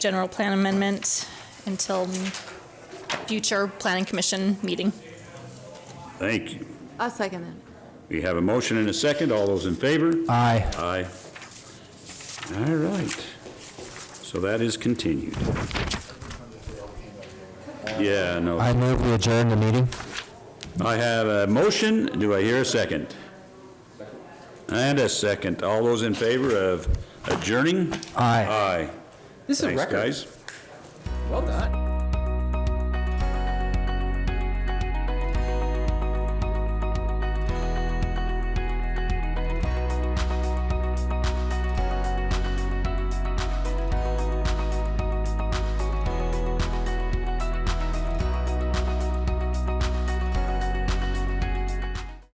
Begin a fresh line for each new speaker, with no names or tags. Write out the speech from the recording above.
general plan amendment until future planning commission meeting.
Thank you.
I'll second that.
We have a motion and a second. All those in favor?
Aye.
Aye. All right. So that is continued. Yeah, no.
I move we adjourn the meeting.
I have a motion. Do I hear a second? And a second. All those in favor of adjourning?
Aye.
Aye.
This is a
Thanks,
record.
guys.
Well done.